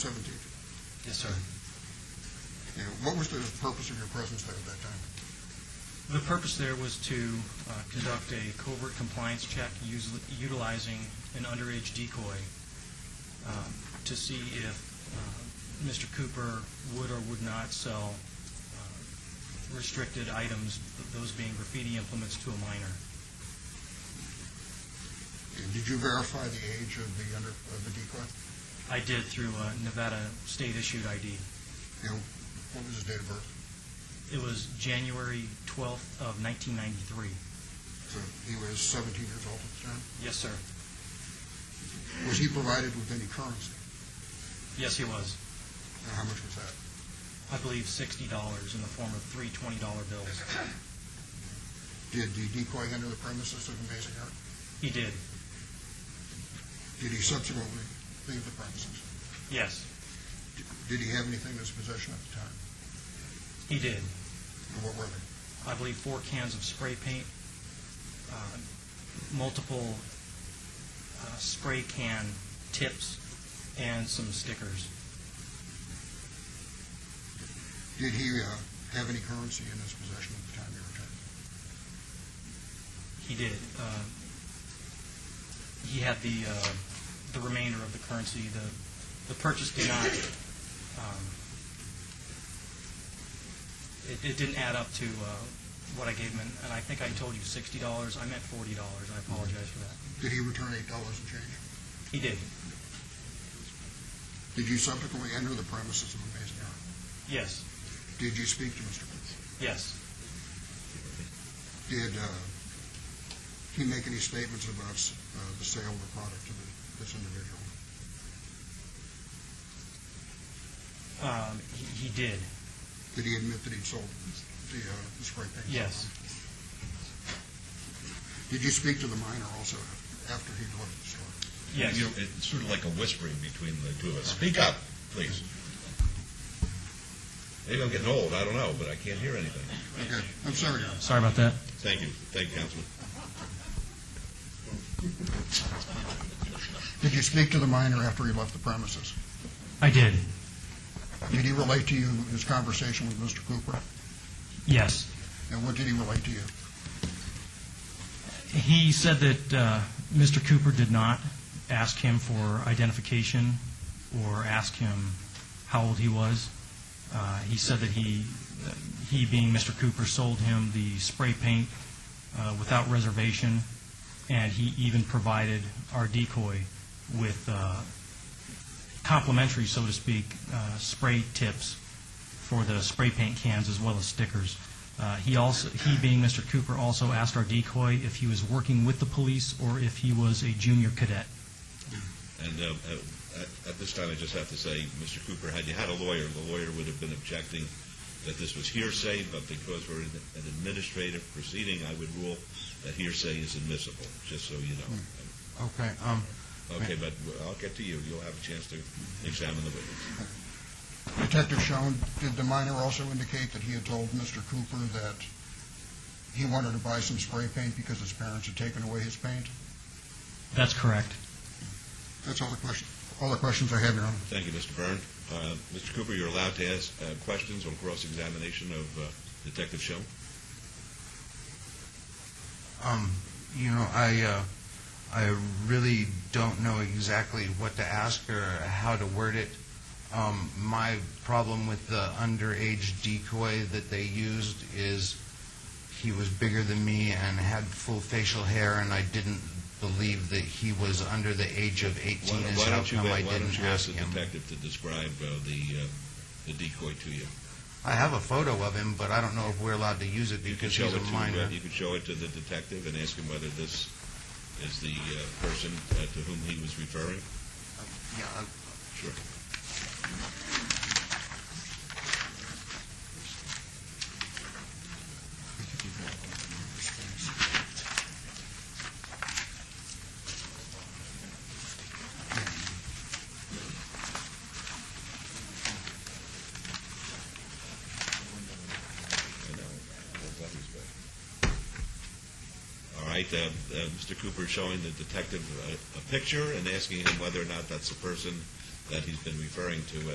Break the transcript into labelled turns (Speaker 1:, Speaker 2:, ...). Speaker 1: seventeen.
Speaker 2: Yes, sir.
Speaker 1: You know, what was the purpose of your presence there at that time?
Speaker 2: The purpose there was to uh, conduct a covert compliance check us- utilizing an underage decoy um, to see if uh, Mr. Cooper would or would not sell uh, restricted items, th- those being graffiti implements, to a minor.
Speaker 1: And did you verify the age of the under, of the decoy?
Speaker 2: I did through a Nevada state-issued ID.
Speaker 1: You know, what was his date of birth?
Speaker 2: It was January 12th of 1993.
Speaker 1: So he was seventeen years old at the time.
Speaker 2: Yes, sir.
Speaker 1: Was he provided with any currency?
Speaker 2: Yes, he was.
Speaker 1: And how much was that?
Speaker 2: I believe $60 in the form of three $20 bills.
Speaker 1: Did the decoy enter the premises of Amazing Art?
Speaker 2: He did.
Speaker 1: Did he subsequently leave the premises?
Speaker 2: Yes,
Speaker 1: Did- Did he have anything in his possession at the time?
Speaker 2: he did.
Speaker 1: And what were they?
Speaker 2: I believe four cans of spray paint, uh, multiple uh, spray can tips, and some stickers.
Speaker 1: Did he uh, have any currency in his possession at the time you returned?
Speaker 2: He did. uh, He had the, uh, the remainder of the currency. The, the purchase did not, um, it, it didn't add up to uh, what I gave him, and- and I think I told you $60. I meant $40. I apologize for that.
Speaker 1: Did he return eight dollars in change?
Speaker 2: He did.
Speaker 1: Did you subsequently enter the premises of Amazing Art?
Speaker 2: Yes,
Speaker 1: Did you speak to Mr. Cooper?
Speaker 2: yes.
Speaker 1: Did uh, he make any statements about s- uh, the sale of the product to the- this individual?
Speaker 2: Um, he, he did.
Speaker 1: Did he admit that he'd sold the uh, the spray paint?
Speaker 2: Yes,
Speaker 1: Did you speak to the minor also after he left the store?
Speaker 2: yes.
Speaker 3: You know, it's sort of like a whispering between the two of us. Speak up, please. Maybe I'm getting old, I don't know, but I can't hear anything.
Speaker 1: Okay, I'm sorry.
Speaker 2: Sorry about that.
Speaker 3: Thank you, thank you, Councilman.
Speaker 1: Did you speak to the minor after he left the premises?
Speaker 2: I did.
Speaker 1: Did he relate to you his conversation with Mr. Cooper?
Speaker 2: Yes.
Speaker 1: And what did he relate to you?
Speaker 2: He said that uh, Mr. Cooper did not ask him for identification or ask him how old he was. Uh, he said that he, that he being Mr. Cooper, sold him the spray paint uh, without reservation, and he even provided our decoy with uh, complimentary, so to speak, uh, spray tips for the spray paint cans as well as stickers. Uh, He also, he being Mr. Cooper, also asked our decoy if he was working with the police or if he was a junior cadet.
Speaker 3: And uh, uh, at- at this time, I just have to say, Mr. Cooper, had you had a lawyer, the lawyer would have been objecting that this was hearsay, but because we're in an administrative proceeding, I would rule that hearsay is admissible, just so you know.
Speaker 4: Okay, um,
Speaker 3: Okay, but I'll get to you, you'll have a chance to examine the witness.
Speaker 1: Detective Schoen, did the minor also indicate that he had told Mr. Cooper that he wanted to buy some spray paint because his parents had taken away his paint?
Speaker 2: That's correct.
Speaker 1: That's all the question, all the questions I have, Your Honor.
Speaker 3: Thank you, Mr. Byrne. Uh, Mr. Cooper, you're allowed to ask uh, questions on cross-examination of uh, Detective Schoen.
Speaker 4: um, you know, I, uh, I really don't know exactly what to ask or how to word it. Um, my problem with the underage decoy that they used is he was bigger than me and had full facial hair, and I didn't believe that he was under the age of
Speaker 3: Why
Speaker 4: 18.
Speaker 3: don't-
Speaker 4: is
Speaker 3: why
Speaker 4: how
Speaker 3: don't you,
Speaker 4: come I
Speaker 3: why
Speaker 4: didn't
Speaker 3: don't you
Speaker 4: ask
Speaker 3: ask the
Speaker 4: him.
Speaker 3: detective to describe uh, the uh, the decoy to you?
Speaker 4: I have a photo of him, but I don't know if we're allowed to use it
Speaker 3: You can
Speaker 4: because
Speaker 3: show
Speaker 4: he's
Speaker 3: it
Speaker 4: a
Speaker 3: to,
Speaker 4: minor.
Speaker 3: uh, you can show it to the detective and ask him whether this is the uh, person uh, to whom he was referring?
Speaker 4: Uh, Yeah, I-
Speaker 3: Sure. I know. Well, that was bad. All right, uh, uh, Mr. Cooper showing the detective a, a picture and asking him whether or not that's the person that he's been referring to